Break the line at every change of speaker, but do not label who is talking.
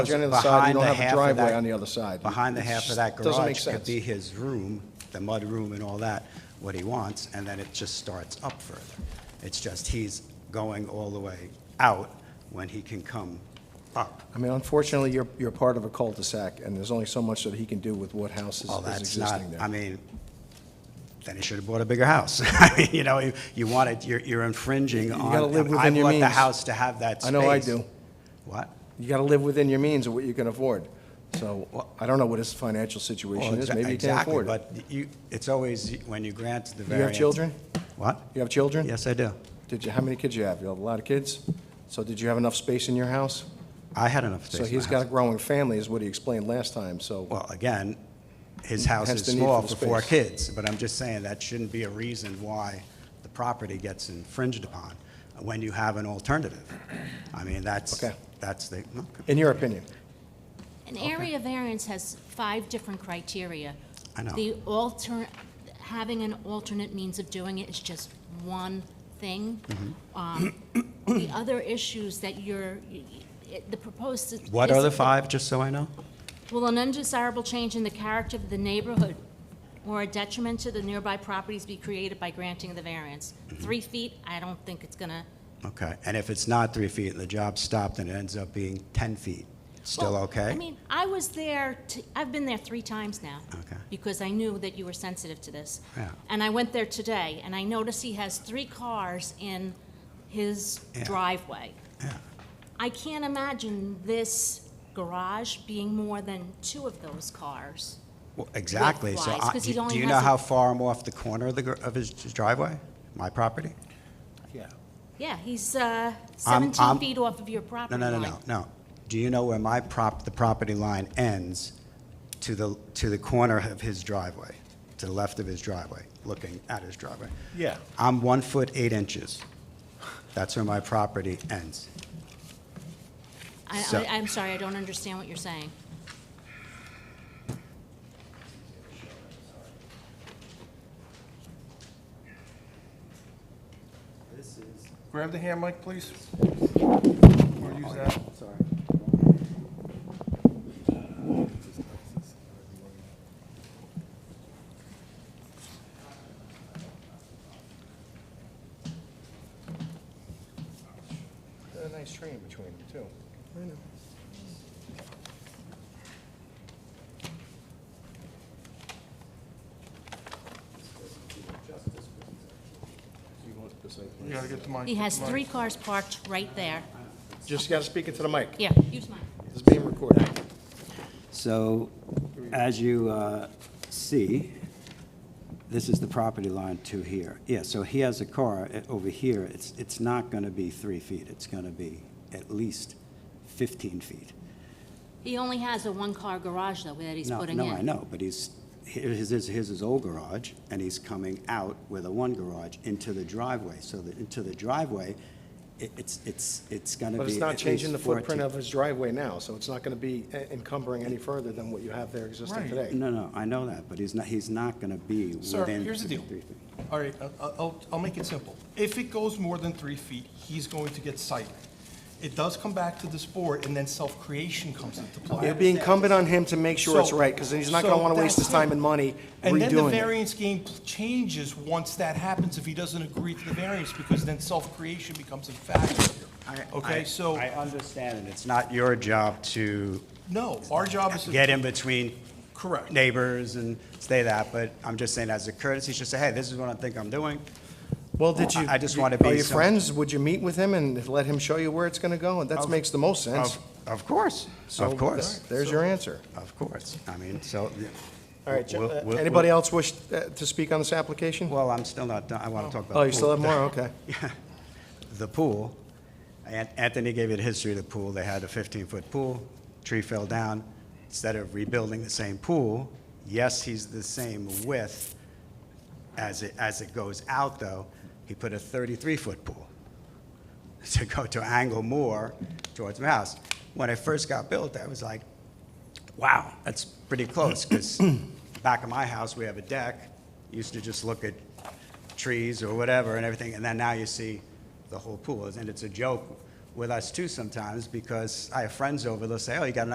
garage on the other side, you
Behind
don't
the
have
half
a
of
driveway
that-
on the other side.
Behind the
It
half of
just
that
Doesn't make
garage could
sense.
be his room, the mud room and all that, what he wants, and then it just starts up further. It's just he's going all the way out when he can come up.
I mean, unfortunately, you're, you're part of a cul-de-sac, and there's only so much that he can do with what house is
Well,
is
Oh, that's not,
existing there.
I mean, then he should have bought a bigger house. I mean, You know, you- you want it, you're- you're infringing
You
on.
gotta live within your
I bought the
means.
house to have that space.
I know I do.
What?
You got to live within your means of what you can afford. So
Well-
I don't know what his financial situation is.
Well, exa-
Maybe he can't afford it.
Exactly, but you, it's always, when you grant the
You
variance.
have children?
What?
You have children?
Yes, I do.
Did you, how many kids you have? You have a lot of kids? So did you have enough space in your house?
I had enough space in
So
my
he's
house.
got a growing family, is what he explained last time, so,
Well, again, his house
Hence
is
the need
small
for
for
the
four
space.
kids, but I'm just saying that shouldn't be a reason why the property gets infringed upon when you have an alternative. I mean, that's,
Okay.
that's the, okay.
in your opinion.
An area variance has five different criteria.
I know.
The alter, having an alternate means of doing it is just one thing.
Mm-hmm.
Um, The other issues that you're, it- the proposed.
What are the
is-
five, just so I know?
Will an undesirable change in the character of the neighborhood or a detriment to the nearby properties be created by granting the variance?
Mm-hmm.
Three feet, I don't think it's gonna,
Okay, and if it's not three feet and the job stopped and it ends up being 10 feet, still
Well,
okay?
I mean, I was there, t- I've been there three times now.
Okay.
Because I knew that you were sensitive to this.
Yeah.
And I went there today, and I noticed he has three cars in his
Yeah.
driveway.
Yeah.
I can't imagine this garage being more than two of those cars.
Well, Exactly, so
width-wise,
I-
'cause he
do do
only
you
has
know
a-
how far I'm off the corner of the, gr- of his driveway, my property?
Yeah, he's uh,
I'm-
17
I'm-
feet off of your
No,
property
no,
line.
no, no, no. Do you know where my prop, the property line ends to the, to the corner of his driveway, to the left of his driveway, looking at his driveway?
Yeah.
I'm one foot eight inches. That's where my property ends.
I-
So-
I, I'm sorry, I don't understand what you're saying.
Grab the hand mic, please. Or use that. Sorry.
A nice tree in between them, too.
You gotta get the mic.
He
get the
has
mic.
three cars parked right there.
Just got to speak into the mic.
Yeah, use mine.
This is being recorded.
So as you uh, see, this is the property line to here. Yeah, so he has a car uh, over here. It's, it's not going to be three feet. It's going to be at least 15 feet.
He only has a one-car garage, though, that he's
No,
putting in.
No, I know, but he's, here- his, is- his is old garage, and he's coming out with a one garage into the driveway. So that, into the driveway, it- it's, it's, it's going to be
But it's not
at
changing the
least
footprint
14.
of his driveway now, so it's not going to be eh, encumbering any further than what you have there existing
Right.
today.
No, no, I know that, but he's not, he's not going to be within.
Sir, here's the deal.
three feet.
All right, I- I- I'll, I'll make it simple. If it goes more than three feet, he's going to get cited. It does come back to this board, and then self-creation comes into play.
It'd be incumbent on him to make sure it's
So-
right, because he's not going to
so
want to waste his
that's it.
time and money
And then the
redoing it.
variance game pl- changes once that happens, if he doesn't agree to the variance, because then self-creation becomes a factor here.
I- I-
Okay, so,
I understand, and it's not your job to
no, our job is to.
get in between
Correct.
neighbors and say that, but I'm just saying as a courtesy, just say, hey, this is what I think I'm doing.
Well, did you?
I- I just wanna
Are
be
you
some-
friends? Would you meet with him and let him show you where it's going to go? And that
Of-
makes the most sense.
Of of course,
So
of course,
There's your answer.
of course. I mean, so.
All right, Jim,
we'll-
uh,
we'll-
anybody
we'll-
else wish uh, to speak on this application?
Well, I'm still not, done. I want to talk about.
Oh, you
the
still have
pool.
more? Okay.
The pool, An- Anthony gave you the history of the pool. They had a 15-foot pool, tree fell down. Instead of rebuilding the same pool, yes, he's the same width as it, as it goes out, though, he put a 33-foot pool to go to angle more towards my house. When it first got built, I was like, wow, that's pretty close, because back of my house, we have a deck, used to just look at trees or whatever and everything, and then now you see the whole pool. And it's a joke with us too sometimes, because I have friends over, they'll say, oh, you got a